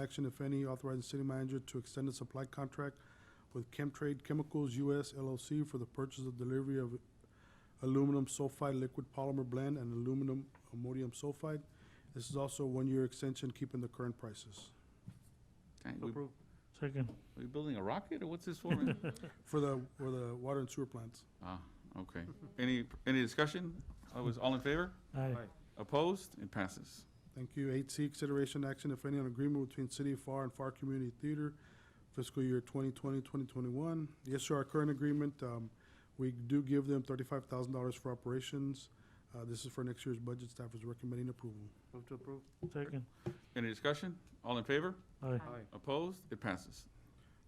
Action, if any, authorizing city manager to extend a supply contract with Chemtrade Chemicals US LLC for the purchase of delivery of aluminum sulfide liquid polymer blend and aluminum ammonium sulfide. This is also a one-year extension, keeping the current prices. Dang, we, Approve. Second. we building a rocket or what's this for? man? For the, for the water and sewer plants. Ah, okay. Any, any discussion? I was all in favor? Aye. Aye. Opposed? It passes. Thank you. Eight C, consideration action, if any, on agreement between City of FAR and FAR Community Theater fiscal year 2020, 2021. Yes, sir, our current agreement, um, we do give them thirty-five thousand dollars for operations. Uh, this is for next year's budget. Staff is recommending approval. Move to approve. Second. Any discussion? All in favor? Aye. Opposed? It passes.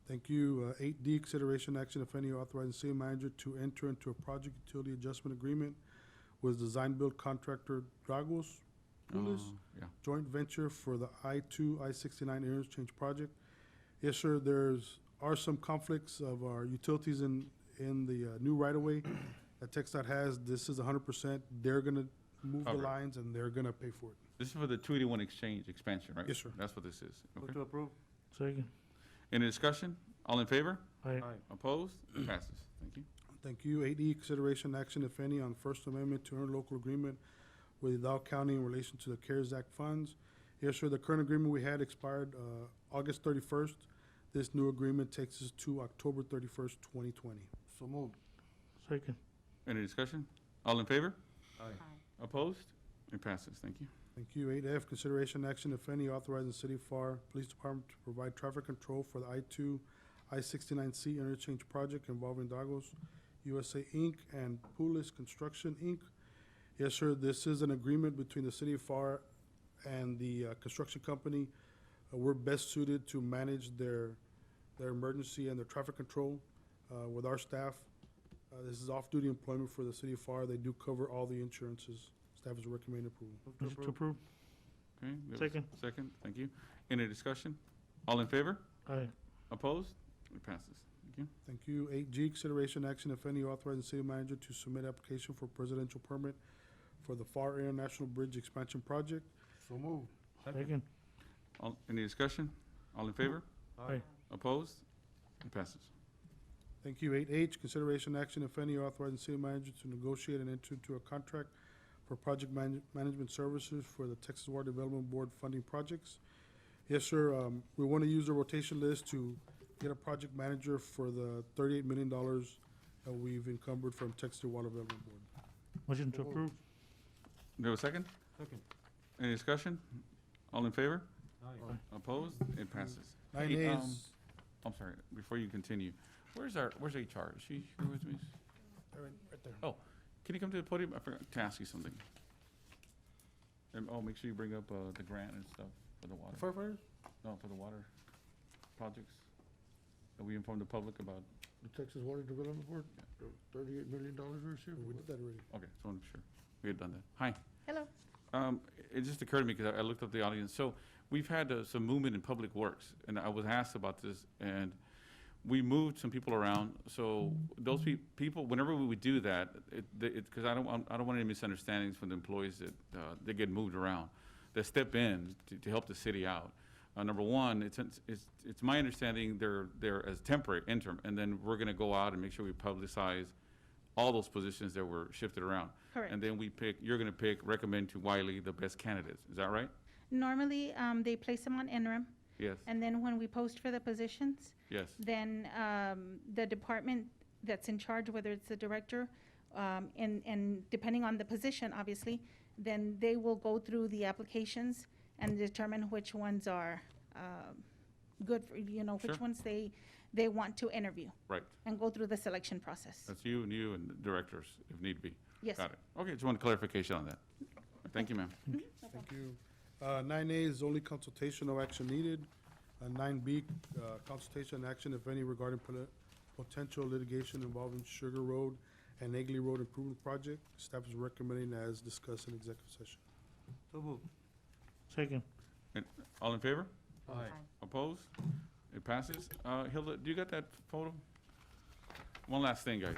Thank you. Uh, Eight D, consideration action, if any, authorizing city manager to enter into a project utility adjustment agreement with design build contractor Dragos Pulis Oh, Yeah. joint venture for the I two, I sixty-nine interchange project. Yes, sir, there's, are some conflicts of our utilities in, in the uh, new right-of-way that TechStat has. This is hundred percent. They're gonna move the Cover it. lines and they're gonna pay for it. This is for the two eighty-one exchange expansion, right? Yes, sir. That's what this is. Move Okay. to approve. Second. Any discussion? All in favor? Aye. Opposed? It passes. Thank you. Thank you. Eight E, consideration action, if any, on First Amendment to interlocal agreement with Dow County in relation to the CARES Act funds. Yes, sir, the current agreement we had expired, uh, August thirty-first. This new agreement takes us to October thirty-first, twenty twenty. So moved. Second. Any discussion? All in favor? Aye. Opposed? It passes. Thank you. Thank you. Eight F, consideration action, if any, authorizing City FAR Police Department to provide traffic control for the I two, I sixty-nine C interchange project involving Dagos USA Inc. and Pulis Construction Inc. Yes, sir, this is an agreement between the City of FAR and the uh, construction company. Uh, We're best suited to manage their, their emergency and their traffic control uh, with our staff. Uh, This is off-duty employment for the City of FAR. They do cover all the insurances. Staff is recommending approval. Move to Move to approve. approve. Okay. we have a Second. Second. Thank you. Any discussion? All in favor? Aye. Opposed? It passes. Thank you. Thank you. Eight G, consideration action, if any, authorizing city manager to submit application for presidential permit for the FAR International Bridge Expansion Project. So moved. Second. All, any discussion? All in favor? Aye. Opposed? It passes. Thank you. Eight H, consideration action, if any, authorizing city manager to negotiate and enter into a contract for project man- management services for the Texas Water Development Board funding projects. Yes, sir, um, we want to use a rotation list to get a project manager for the thirty-eight million dollars that we've encumbered from Texas Water Development Board. Motion to So approve. Do we have a second? Second. Any discussion? All in favor? Aye. Opposed? It passes. Nine Hey, A um, is, I'm sorry, before you continue, where's our, where's HR? Is she here with me? right right there. Can you come to the podium? I forgot to ask you something. And, oh, make sure you bring up, uh, the grant and stuff for the water, Firefighters? no, for the water projects. That we informed the public about. The Texas Water Development Board, thirty-eight million dollars this year. We did that already. Okay, so I'm sure. We had done that. Hi. Hello. Um, it just occurred to me because I, I looked up the audience. So we've had uh, some movement in public works, and I was asked about this, and we moved some people around. So those pe- people, whenever we would do that, it, because I don't, want- I don't want any misunderstandings from the employees that uh, they get moved around, that step in to, to help the city out. Uh, number one, it's, it's, it's my understanding they're, they're as temporary interim, and then we're going to go out and make sure we publicize all those positions that were shifted around. And Correct. then we pick, you're gonna pick, recommend to Wiley the best candidates, is that right? Normally, um, they place them on interim, Yes, and then when we post for the positions, yes, then, um, the department that's in charge, whether it's the director, um, and, and depending on the position, obviously, then they will go through the applications and determine which ones are, um, good, for you know, which Sure. ones they, they want to interview right. and go through the selection process. That's you and you and the directors, if need be. Yes. Got it. Okay, just want clarification on that. Thank you, ma'am. Thank you. Uh, nine A is only consultation, no action needed. Uh, nine B, uh, consultation and action, if any, regarding poli- potential litigation involving Sugar Road and Egley Road Improvement Project. Staff is recommending as discussed in executive session. So moved. Second. All in favor? Aye. Opposed? It passes. Uh, Hilda, do you got that photo? One last thing, guys.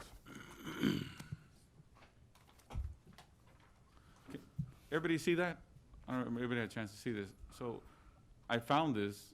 Everybody see that? I don't know, if everybody had a chance to see this. So I found this